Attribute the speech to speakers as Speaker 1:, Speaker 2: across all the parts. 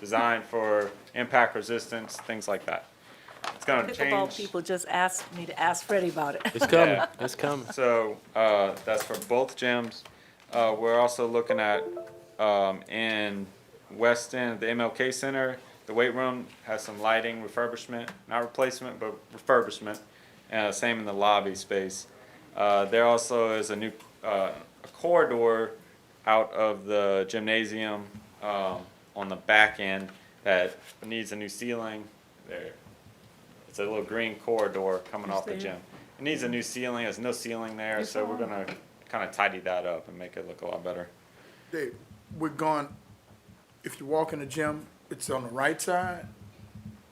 Speaker 1: designed for impact resistance, things like that. It's gonna
Speaker 2: Pickleball
Speaker 1: change,
Speaker 2: people just asked me to ask Freddie about it.
Speaker 3: It's coming,
Speaker 1: Yeah.
Speaker 3: it's coming.
Speaker 1: so, uh, that's for both gyms. Uh, we're also looking at, um, in West End, the MLK Center, the weight room has some lighting refurbishment, not replacement, but refurbishment. Uh, same in the lobby space. Uh, there also is a new, uh, a corridor out of the gymnasium, um, on the back end that needs a new ceiling. There, it's a little green corridor coming off the gym. It needs a new ceiling, there's no ceiling there, so we're gonna kinda tidy that up and make it look a lot better.
Speaker 4: Dave, we're going, if you walk in the gym, it's on the right side,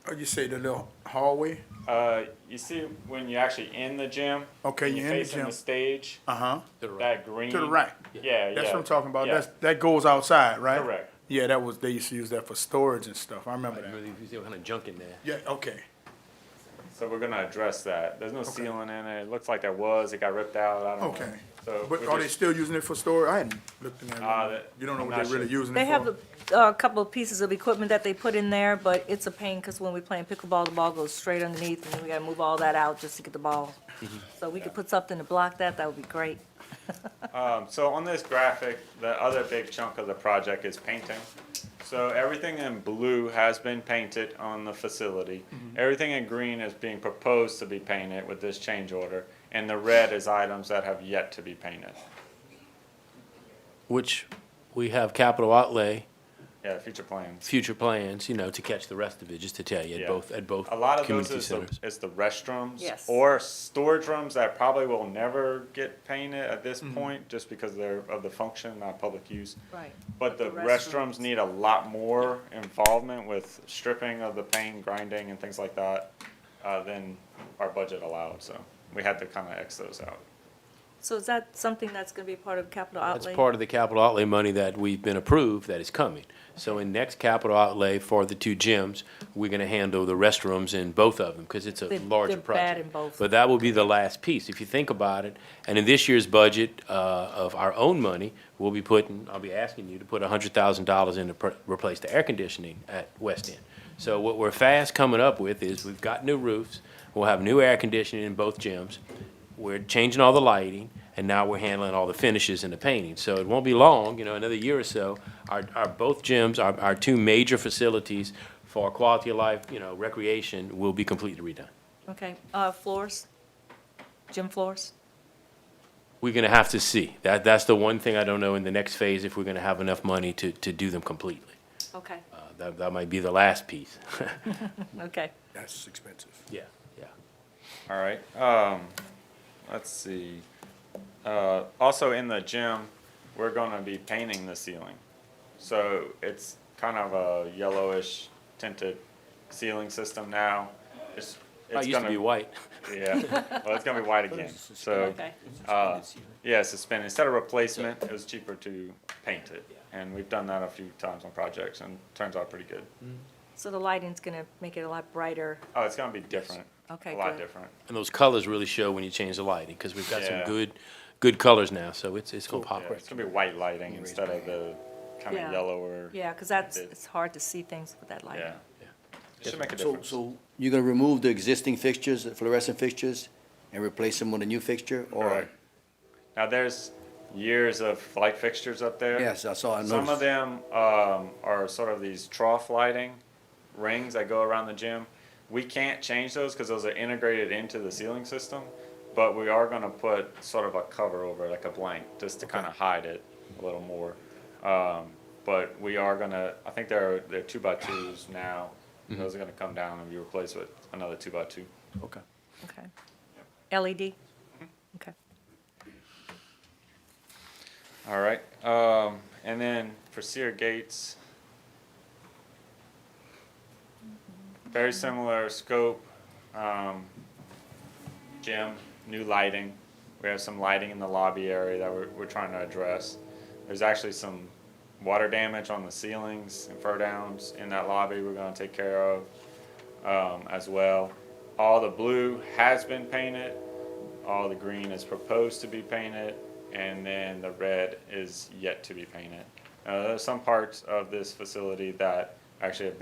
Speaker 4: or you say the little hallway?
Speaker 1: Uh, you see when you're actually in the gym.
Speaker 4: Okay,
Speaker 1: and
Speaker 4: you're in the
Speaker 1: facing
Speaker 4: gym.
Speaker 1: stage.
Speaker 4: Uh-huh.
Speaker 1: That green.
Speaker 4: To the right.
Speaker 1: Yeah, yeah.
Speaker 4: That's what I'm talking about.
Speaker 1: yeah.
Speaker 4: That's, that goes outside, right?
Speaker 1: Correct.
Speaker 4: Yeah, that was, they used to use that for storage and stuff. I remember that.
Speaker 3: Really, you see what kind of junk in there?
Speaker 4: Yeah, okay.
Speaker 1: So we're gonna address that. There's no ceiling in it. It looks like there was. It got ripped out. I don't know.
Speaker 4: Okay.
Speaker 1: So.
Speaker 4: But
Speaker 1: we're
Speaker 4: are they
Speaker 1: just-
Speaker 4: still using it for storage? I hadn't looked in
Speaker 1: Ah,
Speaker 4: there.
Speaker 1: that-
Speaker 4: You don't know
Speaker 1: I'm
Speaker 4: what
Speaker 1: not
Speaker 4: they're really
Speaker 1: sure.
Speaker 4: using it for?
Speaker 2: They have a, a couple of pieces of equipment that they put in there, but it's a pain because when we play pickleball, the ball goes straight underneath and then we gotta move all that out just to get the ball.
Speaker 1: Mm-hmm.
Speaker 2: So we could put something to block that, that would be great.
Speaker 1: Um, so on this graphic, the other big chunk of the project is painting. So everything in blue has been painted on the facility.
Speaker 3: Mm-hmm.
Speaker 1: Everything in green is being proposed to be painted with this change order, and the red is items that have yet to be painted.
Speaker 3: Which we have capital outlay,
Speaker 1: Yeah, future plans.
Speaker 3: future plans, you know, to catch the rest of it, just to tell you, at
Speaker 1: Yeah.
Speaker 3: both, at both
Speaker 1: A lot of those
Speaker 3: community
Speaker 1: is the,
Speaker 3: centers.
Speaker 1: is the restrooms
Speaker 2: Yes.
Speaker 1: or storage rooms that probably will never get painted at this
Speaker 3: Mm-hmm.
Speaker 1: point just because they're of the function, not public use.
Speaker 2: Right.
Speaker 1: But the restrooms need a lot more involvement with stripping of the paint, grinding and things like that, uh, than our budget allowed, so we had to kinda X those out.
Speaker 2: So is that something that's gonna be part of capital
Speaker 3: That's
Speaker 2: outlay?
Speaker 3: part of the capital outlay money that we've been approved that is coming. So in next capital outlay for the two gyms, we're gonna handle the restrooms in both of them, because it's a
Speaker 2: They're-
Speaker 3: larger
Speaker 2: they're bad
Speaker 3: project.
Speaker 2: in both.
Speaker 3: But that will be the last piece, if you think about it. And in this year's budget, uh, of our own money, we'll be putting, I'll be asking you to put hundred thousand dollars in to pr- replace the air conditioning at West End. So what we're fast coming up with is, we've got new roofs, we'll have new air conditioning in both gyms. We're changing all the lighting, and now we're handling all the finishes and the painting. So it won't be long, you know, another year or so, our, our both gyms, our, our two major facilities for quality of life, you know, recreation will be completely redone.
Speaker 2: Okay, uh, floors? Gym floors?
Speaker 3: We're gonna have to see. That, that's the one thing I don't know in the next phase, if we're gonna have enough money to, to do them completely.
Speaker 2: Okay,
Speaker 3: Uh, That, that might be the last piece.
Speaker 2: okay.
Speaker 4: That's expensive.
Speaker 3: Yeah, yeah.
Speaker 1: All right. Um, let's see. Uh, also in the gym, we're gonna be painting the ceiling. So it's kind of a yellowish tinted ceiling system now. It's,
Speaker 3: I
Speaker 1: it's
Speaker 3: used to be
Speaker 1: gonna,
Speaker 3: white.
Speaker 1: yeah, well, it's gonna be white again. So,
Speaker 2: Okay.
Speaker 1: uh, yeah, suspended. Instead of replacement, it was cheaper to paint it. And we've done that a few times on projects and turns out pretty good.
Speaker 2: So the lighting's gonna make it a lot brighter.
Speaker 1: Oh, it's gonna be different.
Speaker 2: Okay,
Speaker 1: A lot
Speaker 2: good.
Speaker 1: different.
Speaker 3: And those colors really show when you change the lighting, because we've got some
Speaker 1: Yeah.
Speaker 3: good, good colors now, so it's, it's gonna pop.
Speaker 1: Yeah, it's gonna be white lighting instead of the kind
Speaker 2: Yeah.
Speaker 1: of yellower.
Speaker 2: Yeah, because that's,
Speaker 1: It-
Speaker 2: it's hard to see things with that lighting.
Speaker 1: Yeah. It should make a
Speaker 5: So,
Speaker 1: difference.
Speaker 5: so you're gonna remove the existing fixtures, the fluorescent fixtures, and replace them with a new fixture, or?
Speaker 1: Correct. Now, there's years of light fixtures up there.
Speaker 5: Yes, I saw, I
Speaker 1: Some of
Speaker 5: noticed.
Speaker 1: them um, are sort of these trough lighting rings that go around the gym. We can't change those because those are integrated into the ceiling system, but we are going to put sort of a cover over, it, like a blank, just to kind of hide it a little more. Um, but we are going to, I think they're, they're two by twos now.
Speaker 5: Mm-hmm.
Speaker 1: Those are going to come down and be replaced with another two by two.
Speaker 5: Okay.
Speaker 2: Okay. LED? Okay.
Speaker 1: All right. Um, and then for Sear Gates, very similar scope, um, gym, new lighting. We have some lighting in the lobby area that we're, we're trying to address. There's actually some water damage on the ceilings and fur downs in that lobby we're going to take care of um, as well. All the blue has been painted, all the green is proposed to be painted, and then the red is yet to be painted. Uh, there are some parts of this facility that actually have been